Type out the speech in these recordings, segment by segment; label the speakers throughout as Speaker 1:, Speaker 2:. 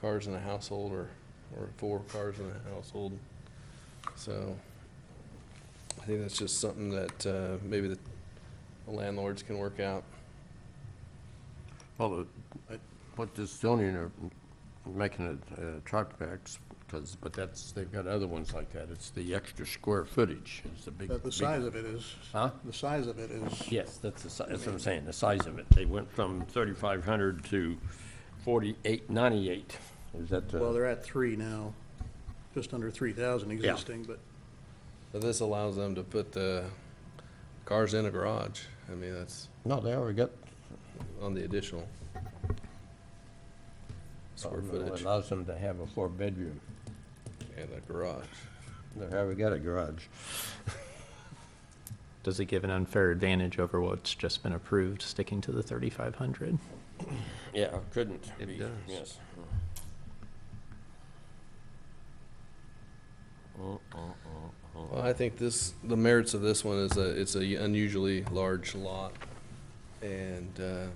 Speaker 1: cars in the household or, or four cars in the household. So I think that's just something that uh, maybe the landlords can work out.
Speaker 2: Well, the- I- what this zoning are making it uh, truck backs, because, but that's, they've got other ones like that. It's the extra square footage is the big.
Speaker 3: But the
Speaker 2: big-
Speaker 3: size of it is,
Speaker 2: Huh?
Speaker 3: the size of it is,
Speaker 2: Yes, that's the, si- that's what I'm saying, the size of it. They went from thirty-five hundred to forty-eight ninety-eight. Is that,
Speaker 3: well,
Speaker 2: uh,
Speaker 3: they're at three now, just under three thousand existing, but
Speaker 1: But this allows them to put the cars in a garage. I mean, that's
Speaker 2: no, they already got.
Speaker 1: on the additional square
Speaker 2: Well, it
Speaker 1: footage
Speaker 2: Allows them to have a four-bedroom.
Speaker 1: and a garage.
Speaker 2: They already got a garage.
Speaker 4: Does it give an unfair advantage over what's just been approved, sticking to the 3,500?
Speaker 2: Yeah, couldn't
Speaker 1: It
Speaker 2: be,
Speaker 1: does.
Speaker 2: yes.
Speaker 1: Well, I think this, the merits of this one is a, it's a unusually large lot. And, uh,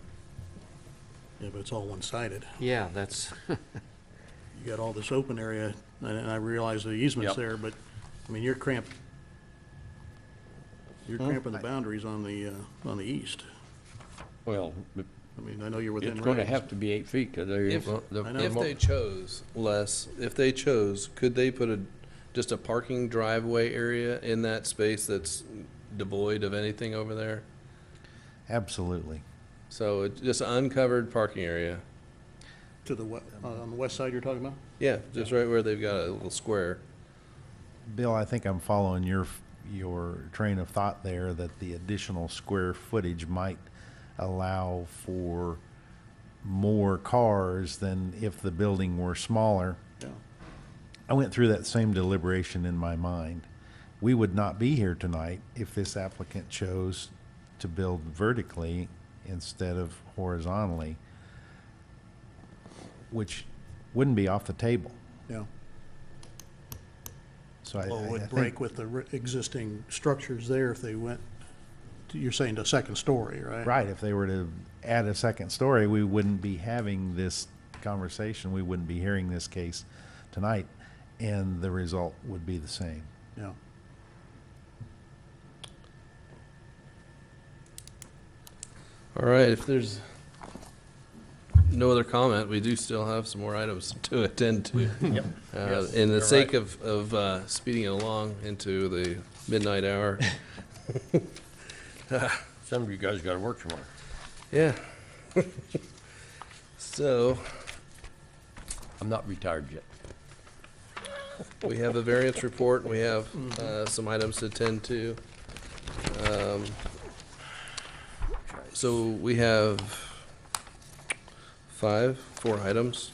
Speaker 3: yeah, but it's all one-sided.
Speaker 5: Yeah, that's,
Speaker 3: You got all this open area, and and I realize the easement's
Speaker 2: Yep.
Speaker 3: there, but, I mean, you're cramped, you're cramping the boundaries on the, uh, on the east.
Speaker 2: Well,
Speaker 3: I mean, I know you're within
Speaker 2: it's gonna
Speaker 3: range.
Speaker 2: have to be eight feet, because they.
Speaker 1: If-
Speaker 2: well, the-
Speaker 3: I know.
Speaker 1: If they chose, Les, if they chose, could they put a, just a parking driveway area in that space that's devoid of anything over there?
Speaker 6: Absolutely.
Speaker 1: So it's just an uncovered parking area.
Speaker 3: To the, we- uh, on the west side you're talking about?
Speaker 1: Yeah, just right where they've got a little square.
Speaker 6: Bill, I think I'm following your, your train of thought there that the additional square footage might allow for more cars than if the building were smaller.
Speaker 3: Yeah.
Speaker 6: I went through that same deliberation in my mind. We would not be here tonight if this applicant chose to build vertically instead of horizontally, which wouldn't be off the table.
Speaker 3: Yeah.
Speaker 6: So I,
Speaker 3: Well, it
Speaker 6: I- I
Speaker 3: would
Speaker 6: think-
Speaker 3: break with the re- existing structures there if they went, to- you're saying to second story, right?
Speaker 6: Right, if they were to add a second story, we wouldn't be having this conversation, we wouldn't be hearing this case tonight, and the result would be the same.
Speaker 3: Yeah.
Speaker 1: All right, if there's no other comment, we do still have some more items to attend to.
Speaker 2: Yep.
Speaker 1: Uh, In the sake of, of uh, speeding it along into the midnight hour,
Speaker 2: Some of you guys gotta work tomorrow.
Speaker 1: yeah. So,
Speaker 2: I'm not retired yet.
Speaker 1: We have a variance report, we have uh, some items to attend to. Um, So we have five, four items.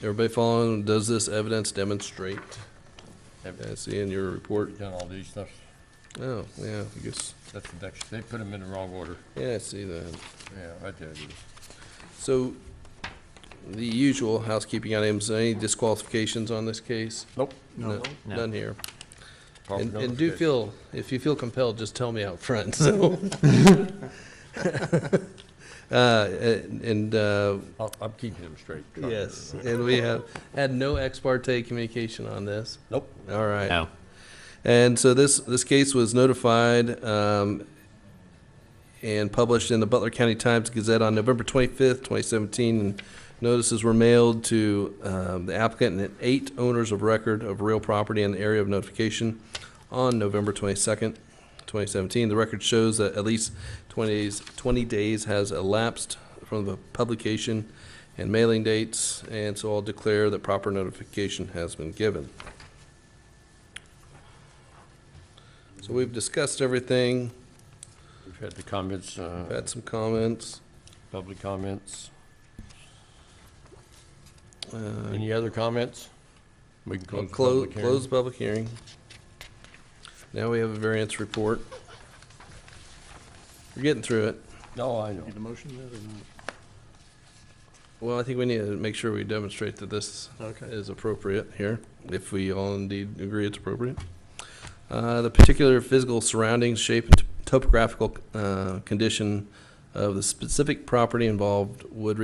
Speaker 1: Everybody following, does this evidence demonstrate? I see in your report,
Speaker 2: We've Done all these stuff.
Speaker 1: oh, yeah, I guess,
Speaker 2: That's the next, they put them in the wrong order.
Speaker 1: yeah, I see that.
Speaker 2: Yeah, right there it is.
Speaker 1: So, the usual housekeeping items, any disqualifications on this case?
Speaker 2: Nope.
Speaker 1: No,
Speaker 4: No.
Speaker 1: none here.
Speaker 2: Proper
Speaker 1: And, and do
Speaker 2: notification.
Speaker 1: feel, if you feel compelled, just tell me out front, so. Uh, and, uh,
Speaker 2: I'll- I'm keeping them straight. Charlie.
Speaker 1: yes, and we have had no ex parte communication on this.
Speaker 2: Nope.
Speaker 1: All right.
Speaker 4: No.
Speaker 1: And so this, this case was notified um, and published in the Butler County Times Gazette on November 25th, 2017. and Notices were mailed to um, the applicant and eight owners of record of real property in the area of notification on November 22nd, 2017. The record shows that at least 20 days, 20 days has elapsed from the publication and mailing dates, and so I'll declare that proper notification has been given. So we've discussed everything,
Speaker 2: We've had the comments, uh,
Speaker 1: had some comments.
Speaker 2: public comments.
Speaker 1: Uh,
Speaker 2: Any other comments? We can
Speaker 1: Close,
Speaker 2: close the public hearing.
Speaker 1: close the public hearing. Now we have a variance report. We're getting through it.
Speaker 2: No, I know.
Speaker 3: Need a motion then or not?
Speaker 1: Well, I think we need to make sure we demonstrate that this
Speaker 3: Okay.
Speaker 1: is appropriate here, if we all indeed agree it's appropriate. Uh, The particular physical surroundings, shape, and topographical uh, condition of the specific property involved would